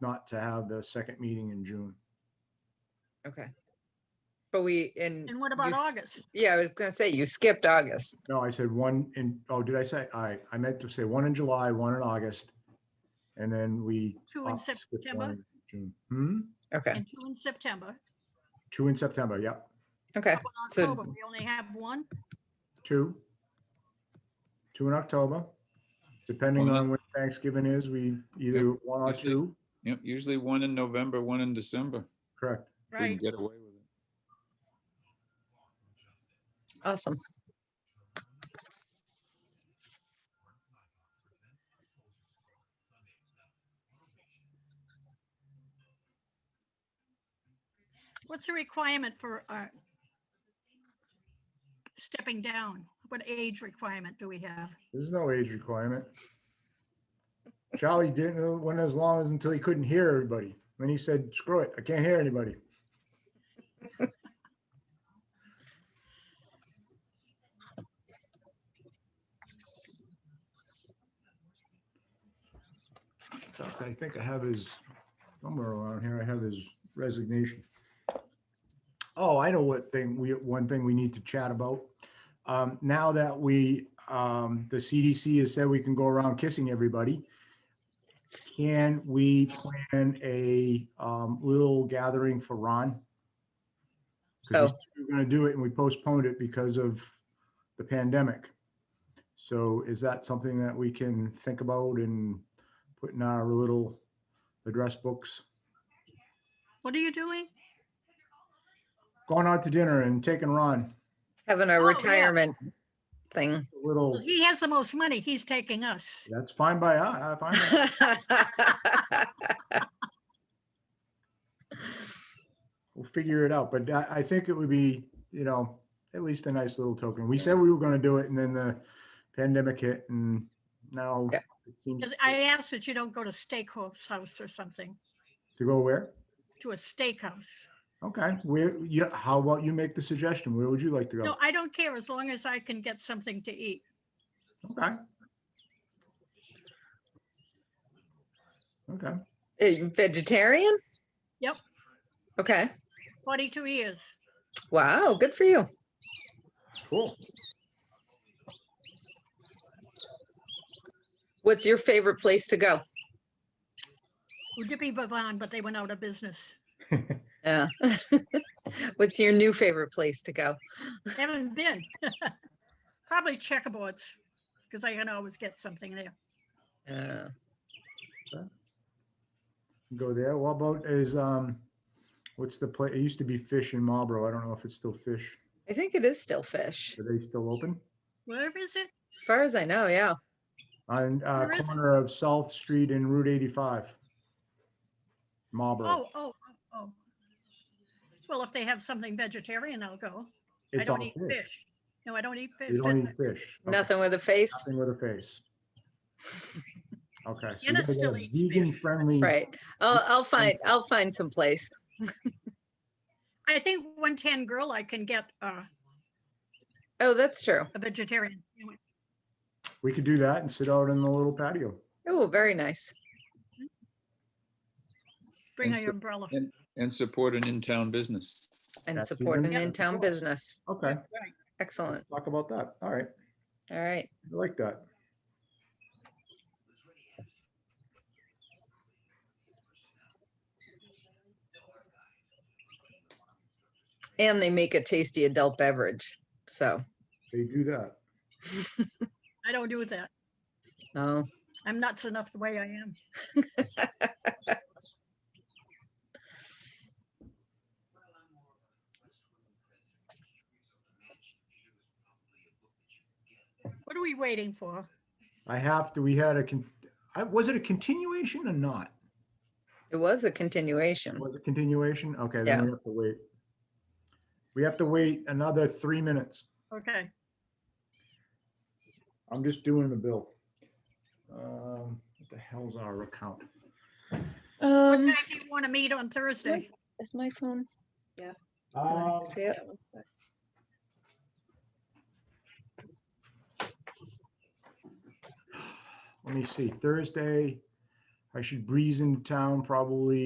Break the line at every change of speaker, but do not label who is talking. not to have the second meeting in June.
Okay. But we, and.
And what
you
about
s-
August?
Yeah, I was gonna say, you skipped August.
No, I said one in, oh, did I say, I, I meant to say one in July, one in August. And then we.
Two in
opt to skip one
September
in June. Hmm,
Okay,
and two in September.
two in September, yep,
okay.
How about
so-
October? We only have one.
two. Two in October, depending
Well,
on when Thanksgiving is, we either one or
usually-
two,
Yep, usually one in November, one in December.
correct.
if we can Get away with it.
Awesome.
What's the requirement for uh, stepping down? What age requirement do we have?
There's no age requirement. Charlie didn't, went as long as until he couldn't hear everybody. Then he said, screw it, I can't hear anybody. In fact, I think I have his, somewhere around here, I have his resignation. Oh, I know what thing, we, one thing we need to chat about. Um, now that we, um, the CDC has said we can go around kissing everybody, can we plan a, um, little gathering for Ron? Because
Oh.
we were gonna do it and we postponed it because of the pandemic. So is that something that we can think about and put in our little address books?
What are you doing?
Going out to dinner and taking Ron,
Having a
Oh, yeah.
retirement thing.
a little,
He has the most money. He's taking us.
that's fine by, I, I find that. we'll figure it out, but I, I think it would be, you know, at least a nice little token. We said we were gonna do it and then the pandemic hit and now
Yeah.
it seems
'Cause I ask that you don't go to Steakhouse House or something,
to go where?
to a steakhouse.
Okay, where, yeah, how about you make the suggestion? Where would you like to
No,
go?
I don't care as long as I can get something to eat.
Okay. Okay,
Eh, Vegetarian?
Yep.
Okay,
42 years.
wow, good for you.
cool.
What's your favorite place to go?
Udipi Bavan, but they went out of business.
Yeah. What's your new favorite place to go?
Haven't been. Probably checkerboards, because I can always get something there.
Uh,
Go there. What about is, um, what's the place? It used to be Fish in Marlboro. I don't know if it's still Fish.
I think it is still fish,
Are they still open?
Where is it?
as far as I know, yeah.
On uh,
Where is it?
corner of South Street and Route 85. Marlboro.
Oh, oh, oh, oh. Well, if they have something vegetarian, I'll go. I
It's all
don't eat
fish.
fish. No, I don't eat fish.
You don't
Then
eat fish. Okay,
Nothing with a face,
Nothing with a face. Okay. so you
Anna
gotta get
still
a
eats fish.
Vegan-friendly.
right? I'll, I'll find, I'll find some place.
I think 110 Grill, I can get uh,
Oh, that's true.
a vegetarian.
We could do that and sit out in the little patio.
Oh, very nice.
Bring
And
out
so-
your umbrella.
and- And support an in-town business.
And
That's even
support an
better,
in-town
sure.
business.
Okay,
Excellent.
talk about that. All right,
All right.
I like that.
And they make a tasty adult beverage. So,
They do that.
I don't do that.
oh,
I'm nuts enough the way I am. What are we waiting for?
I have to, we had a, con- I- was it a continuation or not?
it was a continuation.
Was it continuation? Okay,
Yeah.
then we have to wait. We have to wait another three minutes.
Okay,
I'm just doing the bill. Um, What the hell's our account?
do
Um,
you want to meet on Thursday?
is my phone? Can I
Um,
see it?
Let me see, Thursday, I should breeze into town probably